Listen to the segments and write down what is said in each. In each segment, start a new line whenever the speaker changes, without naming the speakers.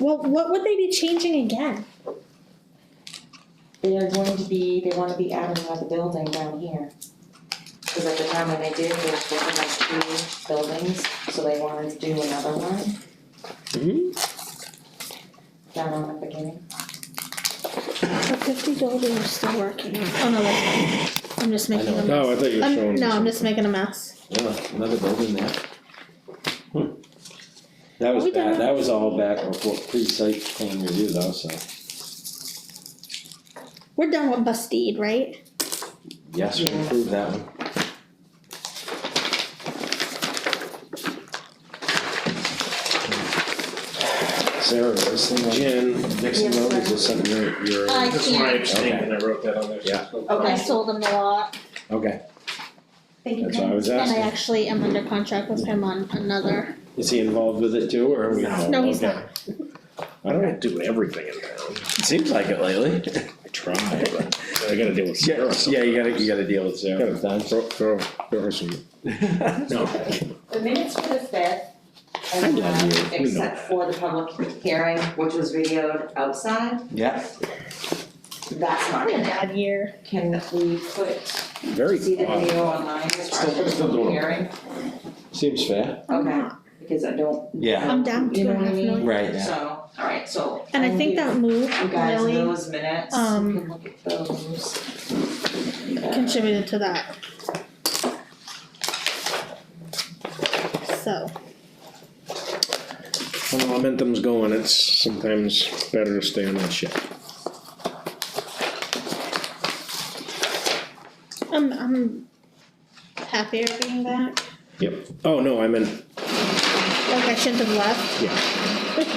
Well, what would they be changing again?
They are going to be, they wanna be adding another building down here. Cause at the time when they did, they were supposed to have two buildings, so they wanted to do another one
Hmm?
down on the beginning.
The fifty building is still working. Oh no, that's fine. I'm just making a mess.
Oh, I thought you were
I'm-
showing.
Um, no, I'm just making a mess.
Yeah, another building there.
Hmm. That was
We don't
bad,
have-
that was all back before pre-site plan review though, so,
We're done with Bustede, right?
Yes, we approved that one.
Sarah, this thing, Jen, Dixon
Yes,
Road is
sir.
just something you're, you're,
I
This is my
can't.
understanding, and I wrote that on there. so it's no problem.
Okay.
I sold them the lot.
okay,
Thank you,
That's what I
Pam.
was
And I
asking.
actually am under contract with him on another.
is he involved with it too, or?
No.
No, he's
Okay.
I don't do everything in town,
Seems like it lately.
I try, but I gotta deal with
Yeah,
Sarah
yeah,
sometimes.
you gotta, you gotta deal with Sarah.
Gotta throw, throw, throw her some, no,
The minutes for the fifth
I
are
love
done,
you. We know
except
that.
for the public hearing, which was videoed outside,
Yeah,
that's not
What a
in there.
bad year.
Can we put,
very
see the
odd.
video online as far
Still-
as the
still
public
doing it.
hearing?
Seems fair.
Okay, because I don't,
yeah,
I'm down
You
two
know
and a
what I
half
mean?
million.
right, yeah.
so, alright, so.
And I think that move
You guys,
really
those minutes, you
um,
can look at those.
contributed to that. So,
When the momentum's going, it's sometimes better to stay on that shit.
I'm, I'm happier being back.
Yep, oh, no, I meant,
Like I shouldn't have left.
yeah,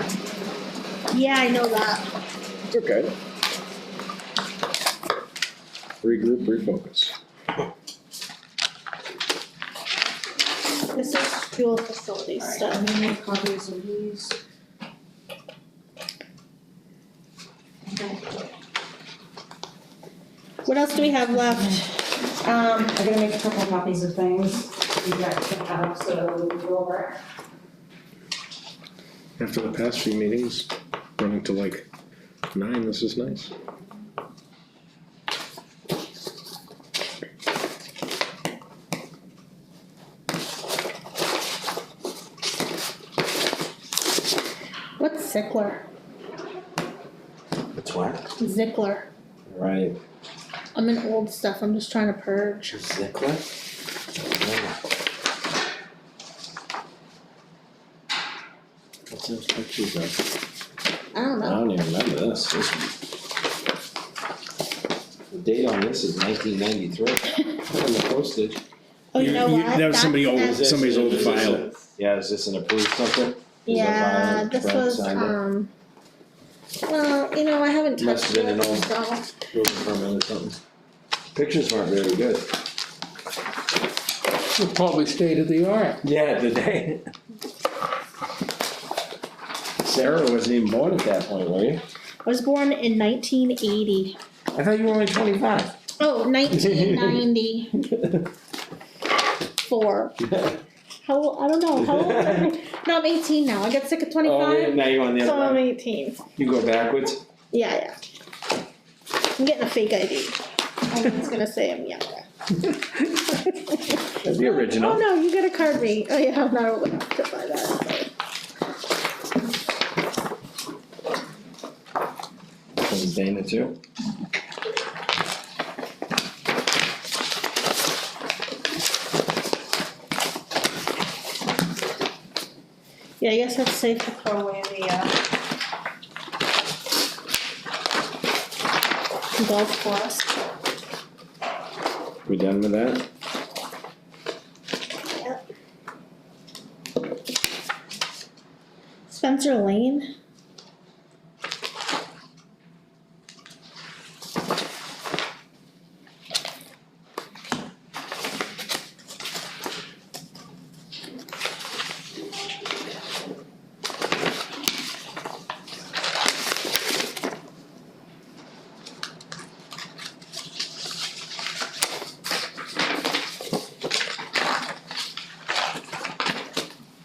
Yeah, I know that.
it's okay. Regroup, refocus.
This is fuel facilities stuff.
Alright, I'm gonna make copies of these.
What else do we have left?
Um, I'm gonna make a couple copies of things, you guys can have, so we can go over.
After the past few meetings, running to like nine, this is nice.
What's Zickler?
It's what?
Zickler.
Right.
I'm in old stuff. I'm just trying to purge.
Zickler?
What's those pictures of?
I don't
I
Uh,
know.
don't even remember this.
The date on this is nineteen ninety-three.
On the postage.
Oh, you
You-
know
you-
what?
that was somebody old-
that's-
Somebody's old
Is this a-
file.
Yeah, is this an approved something?
Yeah, this
Brad
was,
signed it.
um. Well, you know, I haven't
Must
touched
have been
it,
an old-
so.
Building permit or something? Pictures weren't very good.
Probably state of the art.
Yeah, today.
Sarah wasn't even born at that point, were you?
I was born in nineteen eighty.
I thought you were only twenty-five.
Oh, nineteen ninety-four. How, old- I don't know, how old am I? No, I'm eighteen now. I got sick of
Oh, yeah,
twenty-five,
now you're on the
so
other
I'm
one.
eighteen.
You go backwards?
Yeah, yeah. I'm getting a fake ID. Everyone's gonna say I'm younger.
That'd be
Oh, no, you gotta card me. Oh, yeah, I'm not old enough to buy that.
From Dana too.
Yeah, I guess that's safe to throw away the, uh, golf course.
We done with that?
Spencer Lane?